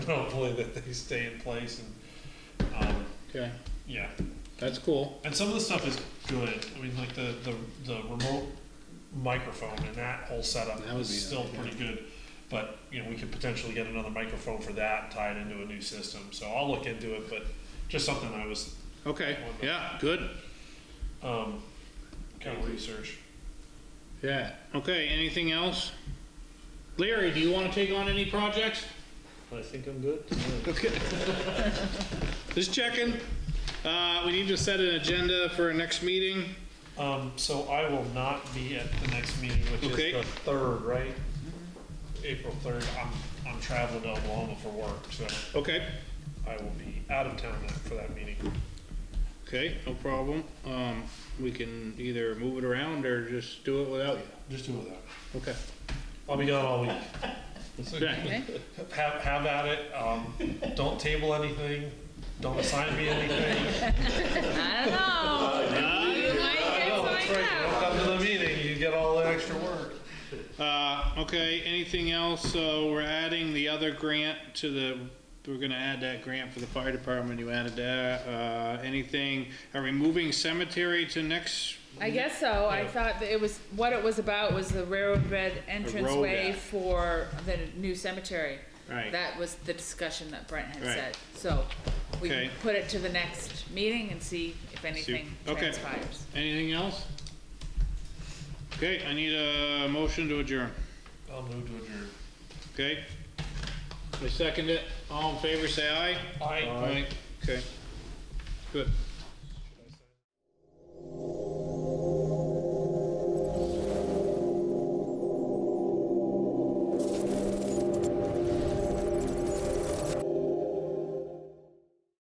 hopefully that they stay in place and, um, Okay, yeah. that's cool. And some of the stuff is good. I mean, like the, the, the remote microphone and that whole setup That would is be still nice, yeah. pretty good. But, you know, we could potentially get another microphone for that and tie it into a new system. So I'll look into it, but just something I was, Okay, yeah, good. um, kind of research. Yeah, okay, anything else? Larry, do you wanna take on any projects? I think I'm good. Okay. Just checking. Uh, we need to set an agenda for our next meeting. Um, so I will not be at the next meeting, which Okay. is the third, right? April third. I'm, I'm traveling to Oklahoma for work, so Okay, I will be out of town that- for that meeting. okay, no problem. Um, we can either move it around or just do it without you. Just do that. Okay. I'll be gone all week. Yeah, Have, have at it. Um, don't table anything. Don't assign me anything. I don't Oh, know. You might get No, Oh, that's something right. You out. don't come to the meeting, you get all the extra work. uh, okay, anything else? So we're adding the other grant to the, we're gonna add that grant for the fire department, you added that. Uh, anything, are we moving cemetery to next? I guess so. I Yeah. thought that it was, what it was about was the railroad bed entranceway yeah. for the new cemetery. Right. That was the discussion that Brent had Right. said. So we can Okay. put it to the next meeting and see if anything okay. transpires. Anything else? Okay, I need a motion to adjourn, I'll move to adjourn. okay? I second it, all in favor, say aye. Aye. Okay, good.